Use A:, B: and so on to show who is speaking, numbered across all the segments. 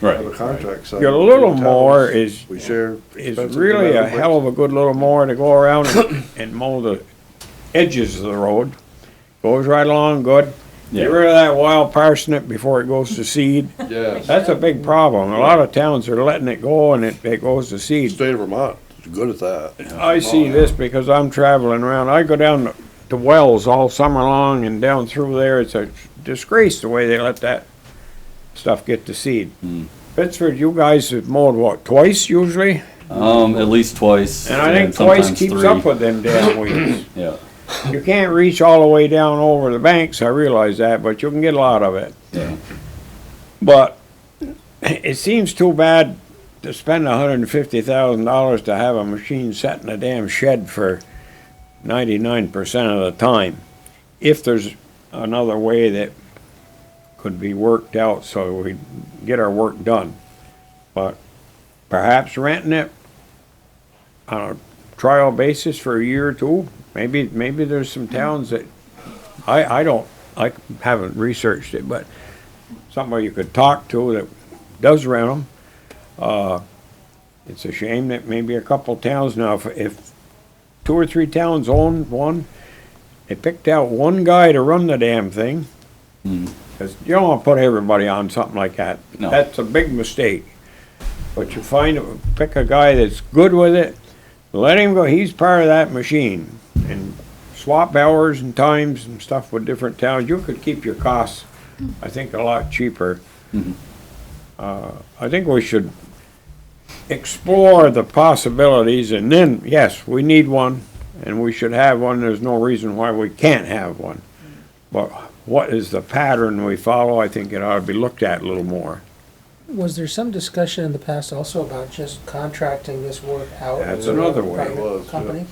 A: Right.
B: of a contract. so
C: You got a little
B: two
C: more
B: towns,
C: is,
B: We share.
C: is
B: expenses no
C: really
B: matter
C: a
B: what.
C: hell of a good little mower to go around and- and mow the edges of the road. Goes right along good. Get
A: Yeah.
C: rid of that wild parsnip before it goes to seed.
B: Yes.
C: That's a big problem. A lot of towns are letting it go and it, it goes to seed.
B: State of Vermont is good at that.
C: I see this because I'm traveling around. I go down to Wells all summer long and down through there. It's a disgrace the way they let that stuff get to seed. Pittsford, you guys have mowed what, twice usually?
A: Um, at least twice.
C: And I think twice
A: sometimes
C: keeps
A: three.
C: up with them damn weeds.
A: Yeah,
C: you can't reach all the way down over the banks, I realize that, but you can get a lot of it.
A: yeah.
C: But it seems too bad to spend hundred and fifty thousand dollars to have a machine set in a damn shed for ninety-nine percent of the time. If there's another way that could be worked out so we get our work done. But perhaps renting it on a trial basis for a year or two, maybe, maybe there's some towns that, I, I don't, I haven't researched it, but somebody you could talk to that does rent them. Uh, it's a shame that maybe a couple towns now, if, if two or three towns own one, they picked out one guy to run the damn thing. Cause you don't wanna put everybody on something like that.
A: No.
C: That's a big mistake. But you find, pick a guy that's good with it, let him go, he's part of that machine. And swap hours and times and stuff with different towns, you could keep your costs, I think, a lot cheaper.
A: Mm-hmm.
C: Uh, I think we should explore the possibilities and then, yes, we need one and we should have one, there's no reason why we can't have one. But what is the pattern we follow, I think it ought to be looked at a little more.
D: Was there some discussion in the past also about just contracting this work out?
C: That's
D: to a
C: another way.
D: private
B: It was, yeah.
D: Company?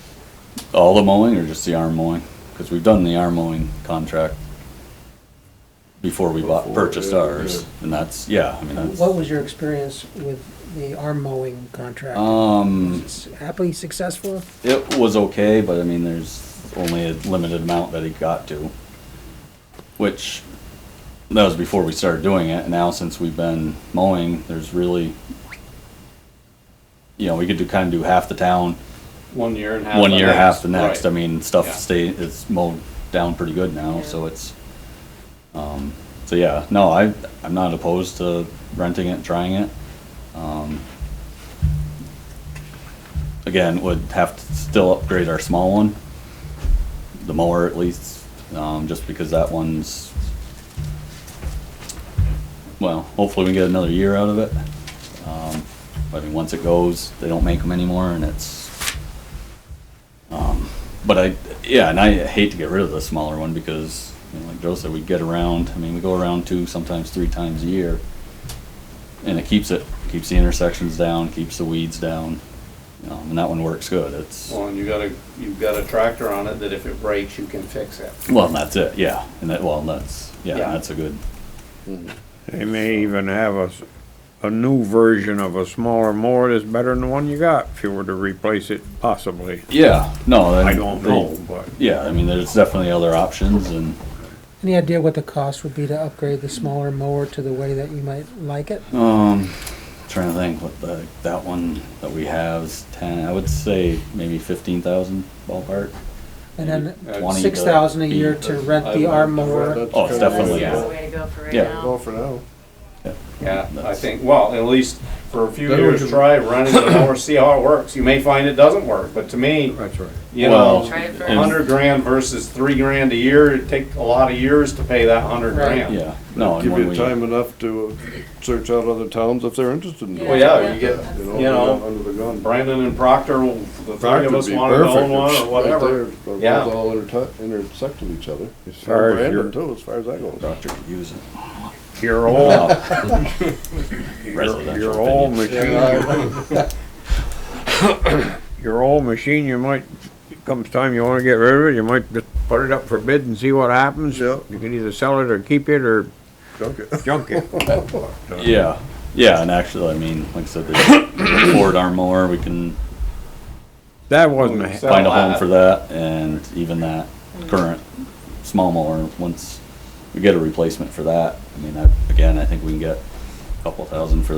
A: All the mowing or just the arm mowing? Because we've done the arm mowing contract before we bought,
B: Before,
A: purchased
B: yeah,
A: ours, and that's, yeah, I mean, that's.
D: What was your experience with the arm mowing contract?
A: Um,
D: Was it Happily successful?
A: it was okay, but I mean, there's only a limited amount that he got to. Which, that was before we started doing it, and now since we've been mowing, there's really, you know, we could do, kinda do half the town,
E: One year and half.
A: one
E: the
A: year,
E: next.
A: half the next, I
E: Right.
A: mean, stuff
E: Yeah.
A: stay, it's mowed down pretty good now,
D: Yeah.
A: so it's, um, so yeah, no, I, I'm not opposed to renting it, and trying it. Um, Again, would have to still upgrade our small one, the mower at least, um, just because that one's, well, hopefully we get another year out of it. Um, I mean, once it goes, they don't make them anymore and it's um, but I, yeah, and I hate to get rid of the smaller one because, you know, like Joe said, we get around, I mean, we go around two, sometimes three times a year. And it keeps it, keeps the intersections down, keeps the weeds down, um, and that one works good, it's,
E: Well, and you got a, you've got a tractor on it that if it breaks, you can fix it.
A: well, and that's it, yeah, and that, well, and that's, yeah,
E: Yeah.
A: that's a good,
C: They may even have a, s- a new version of a smaller mower that's better than the one you got, if you were to replace it possibly.
A: yeah, no. then
C: I don't
A: they-
C: know, but
A: Yeah, I mean, there's definitely other options and,
D: Any idea what the cost would be to upgrade the smaller mower to the way that you might like it?
A: um, trying to think what the, that one that we have is ten, I would say maybe fifteen thousand ballpark.
D: And
E: Uh,
D: then
A: 20 to
D: six thousand a year
A: 80.
D: to rent
E: I would-
D: the arm
B: That's
D: mower.
A: Oh, it's
B: kinda-
A: definitely-
E: Yeah.
F: That's the way to go for right
A: Yeah.
B: Well,
F: now.
B: for now.
E: Yeah, I
A: That's-
E: think, well, at least for a few
B: Then we
E: years,
B: can-
E: try running the mower, see how it works. You may find it doesn't work, but to me,
C: that's right.
E: you
A: Well,
E: know,
F: Try it
A: and-
F: first.
E: hundred grand versus three grand a year, it'd take a lot of years to pay that hundred
D: Right.
E: grand.
A: Yeah, no, and
B: Give
A: when
B: you
A: we.
B: time enough to uh, search out other towns if they're interested in doing it.
E: Well, yeah, you get,
B: You
E: you know,
B: know, under the gun.
E: Brandon and Proctor, will- the three
B: Proctor'd
E: of us
B: be
E: wanted to
B: perfect.
E: own one
B: It's
E: or
B: right
E: whatever.
B: there. They're
E: Yeah.
B: both all intertu- intersect with each other. As
C: far
B: far
C: as
B: as
C: your-
B: Brandon too, as far as that goes.
A: Doctor could use it.
C: Your old, your,
A: Residential
C: your old
A: opinion.
C: machine, you- your old machine, you might, comes time you wanna get rid of it, you might just put it up for bid and see what happens.
B: Yep.
C: You can either sell it or keep it or
B: Junk it.
C: junk it.
A: Yeah, yeah, and actually, I mean, like I said, the Ford Armor, we can
C: That wasn't a,
E: So-
C: he-
A: find a home
E: that.
A: for that, and even that current small mower, once we get a replacement for that, I mean, I, again, I think we can get a couple thousand for